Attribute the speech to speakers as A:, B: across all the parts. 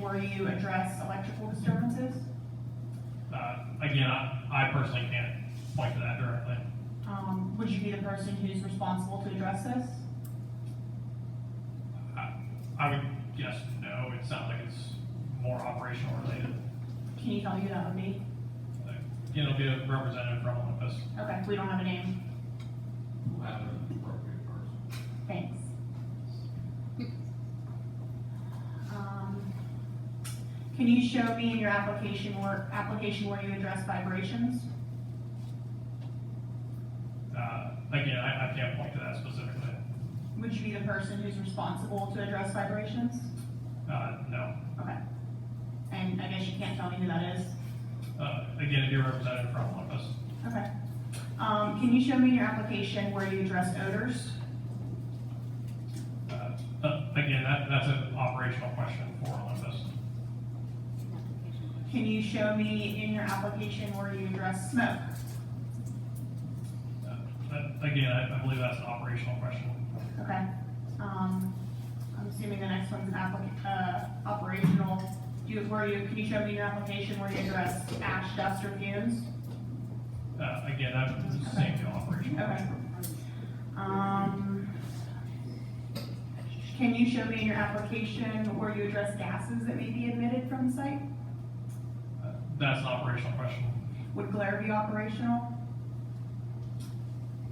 A: before you address electrical disturbances?
B: Uh, again, I, I personally can't point to that directly.
A: Um, would you be the person who's responsible to address this?
B: I, I would guess no, it sounds like it's more operational related.
A: Can you tell who that would be?
B: Like, Again, it'll be a representative from Olympus.
A: Okay, we don't have a name.
C: We'll have an appropriate person.
A: Thanks. Um, Can you show me in your application or, application where you address vibrations?
B: Uh, again, I, I can't point to that specifically.
A: Would you be the person who's responsible to address vibrations?
B: Uh, no.
A: Okay. And I guess you can't tell me who that is?
B: Uh, again, it'd be a representative from Olympus.
A: Okay. Um, can you show me in your application where you address odors?
B: Uh, uh, again, that, that's an operational question for Olympus.
A: Can you show me in your application where you address smoke?
B: Uh, that- again, I, I believe that's an operational question.
A: Okay. Um, I'm assuming the next one's applic- uh, operational. Do you, where you, can you show me in your application where you address ash, dust, or fumes?
B: Uh, again, that's the same deal, operational.
A: Okay. Um, can you show me in your application where you address gases that may be emitted from the site?
B: Uh, That's an operational question.
A: Would glare be operational?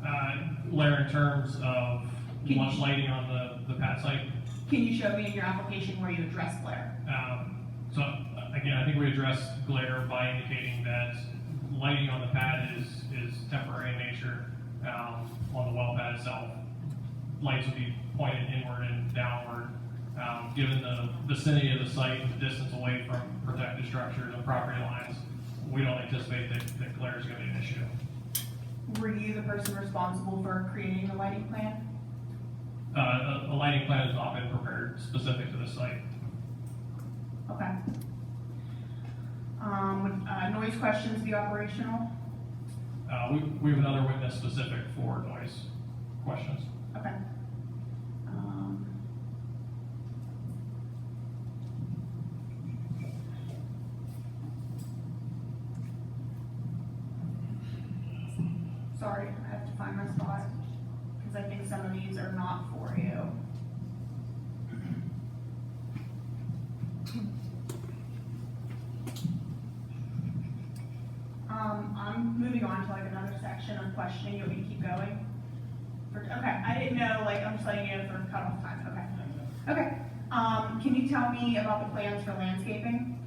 B: Uh, Larry, in terms of
A: Can you-
B: one lighting on the, the pad site,
A: Can you show me in your application where you address glare?
B: um, so uh, again, I think we addressed glare by indicating that lighting on the pad is, is temporary in nature. Um, on the well pad itself, lights would be pointed inward and downward. Um, given the vicinity of the site, and the distance away from protected structures and property lines, we don't anticipate that, that glare is gonna be an issue.
A: Were you the person responsible for creating the lighting plan?
B: Uh, a- a lighting plan has not been prepared specific to the site.
A: Okay. Um, would, uh, noise questions be operational?
B: Uh, we, we have another witness specific for noise questions.
A: Okay. Um, Sorry, I have to find my spot, because I think some of these are not for you. Um, I'm moving on to like another section of questioning, you want me to keep going? For- Okay, I didn't know, like, I'm just letting you know for cutoff time, okay. Okay, um, can you tell me about the plans for landscaping?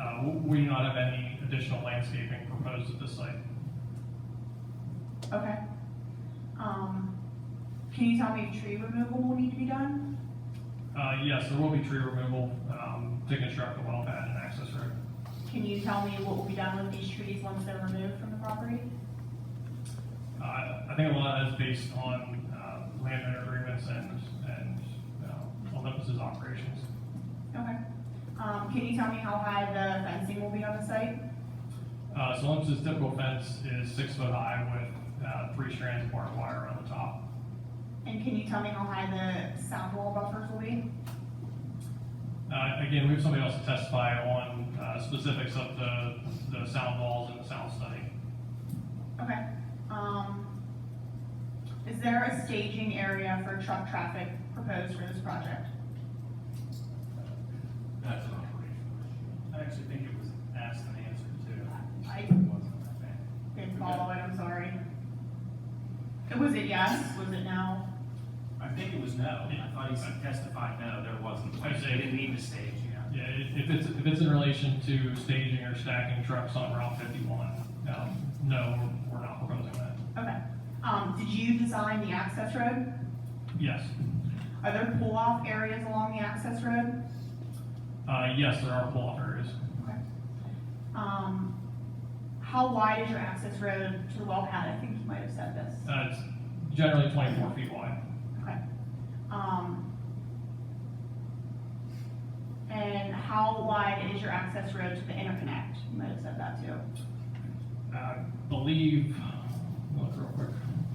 B: Uh, w- we do not have any additional landscaping proposed at this site.
A: Okay. Um, can you tell me if tree removal will need to be done?
B: Uh, yes, there will be tree removal, um, to construct the well pad and access road.
A: Can you tell me what will be done with these trees once they're removed from the property?
B: Uh, I think a lot of that is based on, uh, landowner agreements and, and, uh, Olympus's operations.
A: Okay. Um, can you tell me how high the fencing will be on the site?
B: Uh, so Olympus's typical fence is six foot high with, uh, three strands of barbed wire on the top.
A: And can you tell me how high the sound wall buffers will be?
B: Uh, again, we have somebody else to testify on, uh, specifics of the, the sound walls and the sound study.
A: Okay. Um, is there a staging area for truck traffic proposed for this project?
C: That's an operational issue.
D: I actually think it was asked and answered too.
A: I-
D: It wasn't, I think.
A: Didn't follow it, I'm sorry. Uh, Was it yes, was it no?
D: I think it was no. I thought he said testified, no, there wasn't.
B: I'd say-
D: They didn't need the stage, yeah.
B: Yeah, i- if it's, if it's in relation to staging or stacking trucks on Route fifty-one, um, no, we're we're not proposing that.
A: Okay. Um, did you design the access road?
B: Yes,
A: Are there pull-off areas along the access road?
B: uh, yes, there are pull-off areas.
A: Okay. Um, how wide is your access road to the well pad? I think you might have said this.
B: Uh, it's generally twenty-four feet wide.
A: Okay. Um, and how wide is your access road to the
B: Uh,
A: interconnect? You might have said that too.
B: I believe, look real quick.